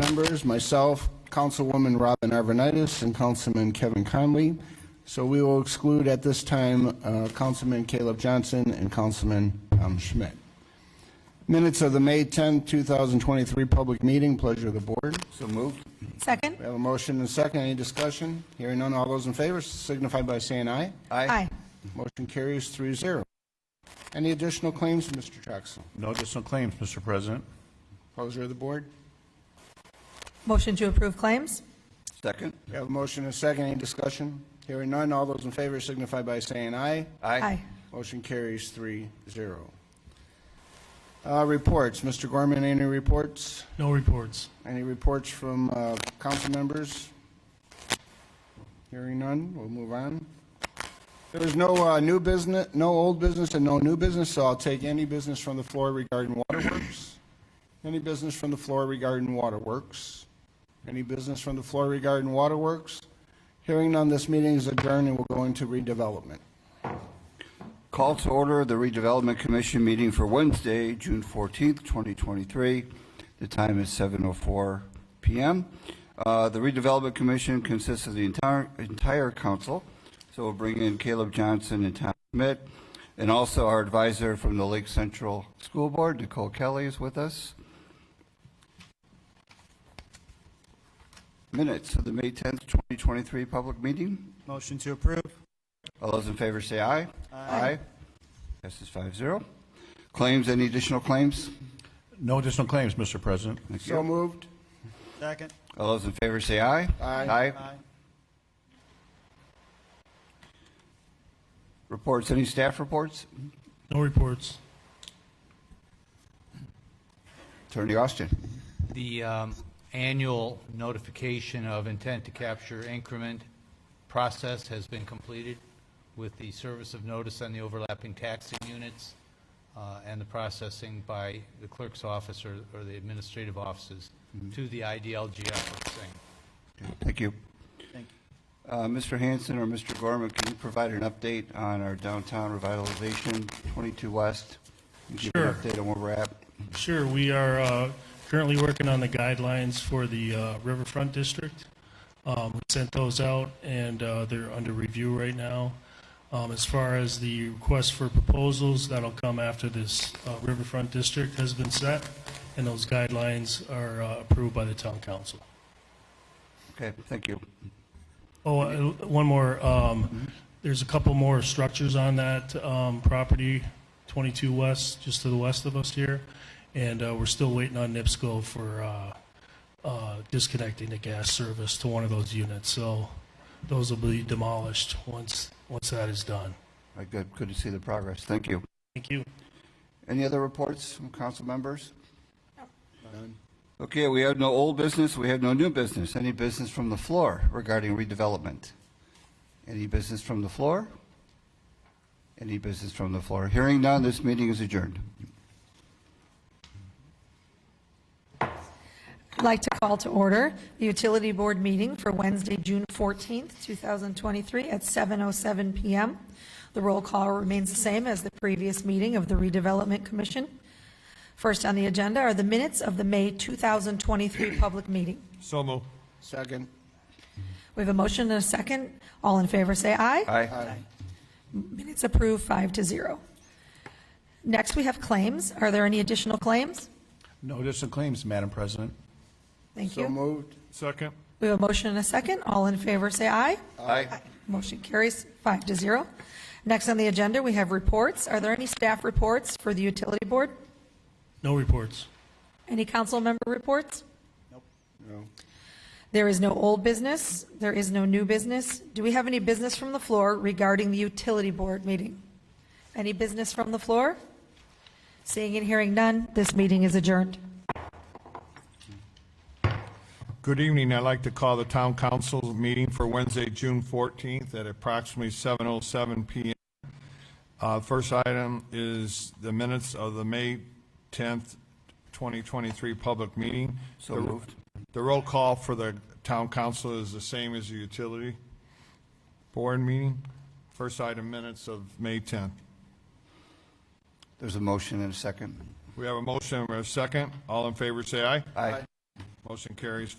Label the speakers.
Speaker 1: members, myself, Councilwoman Robin Arvanitis, and Councilman Kevin Conley. So we will exclude at this time uh, Councilman Caleb Johnson and Councilman um, Schmidt. Minutes of the May 10, 2023 public meeting, pleasure of the board. So moved.
Speaker 2: Second?
Speaker 1: We have a motion and a second, any discussion? Hearing none, all those in favor signify by saying aye.
Speaker 2: Aye.
Speaker 1: Motion carries three zero. Any additional claims, Mr. Troxel?
Speaker 3: No additional claims, Mr. President.
Speaker 1: Pleasure of the board.
Speaker 2: Motion to approve claims?
Speaker 4: Second?
Speaker 1: We have a motion and a second. Any discussion? Hearing none. All those in favor signify by saying aye.
Speaker 2: Aye.
Speaker 1: Motion carries three zero. Uh, reports. Mr. Gorman, any reports?
Speaker 5: No reports.
Speaker 1: Any reports from, uh, council members? Hearing none. We'll move on. There is no, uh, new business, no old business and no new business, so I'll take any business from the floor regarding waterworks. Any business from the floor regarding waterworks? Any business from the floor regarding waterworks? Hearing none, this meeting is adjourned and we'll go into redevelopment.
Speaker 4: Call to order the redevelopment commission meeting for Wednesday, June 14th, 2023. The time is 7:04 PM. Uh, The redevelopment commission consists of the entire, entire council, so we'll bring in Caleb Johnson and Tom Schmidt, and also our advisor from the Lake Central School Board, Nicole Kelly, is with us. Minutes of the May 10th, 2023 public meeting.
Speaker 6: Motion to approve.
Speaker 4: All those in favor say aye. Aye. Passes five zero. Claims, any additional claims?
Speaker 3: No additional claims, Mr. President.
Speaker 4: Thank
Speaker 1: So
Speaker 4: you.
Speaker 1: moved.
Speaker 6: Second.
Speaker 4: All those in favor say aye.
Speaker 1: Aye.
Speaker 4: Aye. Reports, any staff reports?
Speaker 5: No reports.
Speaker 4: Attorney Austin.
Speaker 7: The um, annual notification of intent to capture increment process has been completed with the service of notice on the overlapping taxing units uh, and the processing by the clerk's office or or the administrative offices to the IDLG efforts.
Speaker 4: Thank you.
Speaker 6: Thank
Speaker 4: Uh, Mr. Hanson or Mr. Gorman, can you provide an update on our downtown revitalization, 22 West? Can you Give an
Speaker 5: Sure.
Speaker 4: update on where we're at.
Speaker 5: Sure, we are uh, currently working on the guidelines for the uh, Riverfront District. Um, We sent those out, and uh, they're under review right now. Um, As far as the request for proposals, that'll come after this uh, Riverfront District has been set, and those guidelines are uh, approved by the town council.
Speaker 4: Okay, thank you.
Speaker 5: Oh, uh, one more. um, There's a couple more structures on that um, property, 22 West, just to the west of us here, and uh, we're still waiting on NIPSCO for uh, uh, disconnecting the gas service to one of those units. So those will be demolished once, once that is done.
Speaker 4: Uh, Good, good to see the progress. Thank you.
Speaker 5: Thank you.
Speaker 4: Any other reports from council members? Okay, we have no old business, we have no new business. Any business from the floor regarding redevelopment? Any business from the floor? Any business from the floor? Hearing none, this meeting is adjourned.
Speaker 2: I'd like to call to order the Utility Board meeting for Wednesday, June 14th, 2023, at 7:07 PM. The roll call remains the same as the previous meeting of the Redevelopment Commission. First on the agenda are the minutes of the May 2023 public meeting.
Speaker 6: So moved.
Speaker 1: Second.
Speaker 2: We have a motion and a second. All in favor, say aye.
Speaker 4: Aye.
Speaker 2: Minutes approved, five to zero. Next, we have claims. Are there any additional claims?
Speaker 3: No additional claims, Madam President.
Speaker 2: Thank
Speaker 1: So
Speaker 2: you.
Speaker 1: moved.
Speaker 6: Second.
Speaker 2: We have a motion and a second. All in favor, say aye.
Speaker 4: Aye.
Speaker 2: Motion carries five to zero. Next on the agenda, we have reports. Are there any staff reports for the utility board?
Speaker 5: No reports.
Speaker 2: Any council member reports?
Speaker 1: No.
Speaker 2: There is no old business. There is no new business. Do we have any business from the floor regarding the utility board meeting? Any business from the floor? Seeing and hearing none, this meeting is adjourned.
Speaker 8: Good evening. I'd like to call the town council meeting for Wednesday, June 14th at approximately 7:07 PM. Uh, First item is the minutes of the May 10th, 2023 public meeting.
Speaker 4: So
Speaker 8: The-
Speaker 4: moved.
Speaker 8: The roll call for the town council is the same as the utility board meeting. First item, minutes of May 10th.
Speaker 4: There's a motion and a second.
Speaker 8: We have a motion and a second. All in favor, say aye.
Speaker 4: Aye.
Speaker 8: Motion carries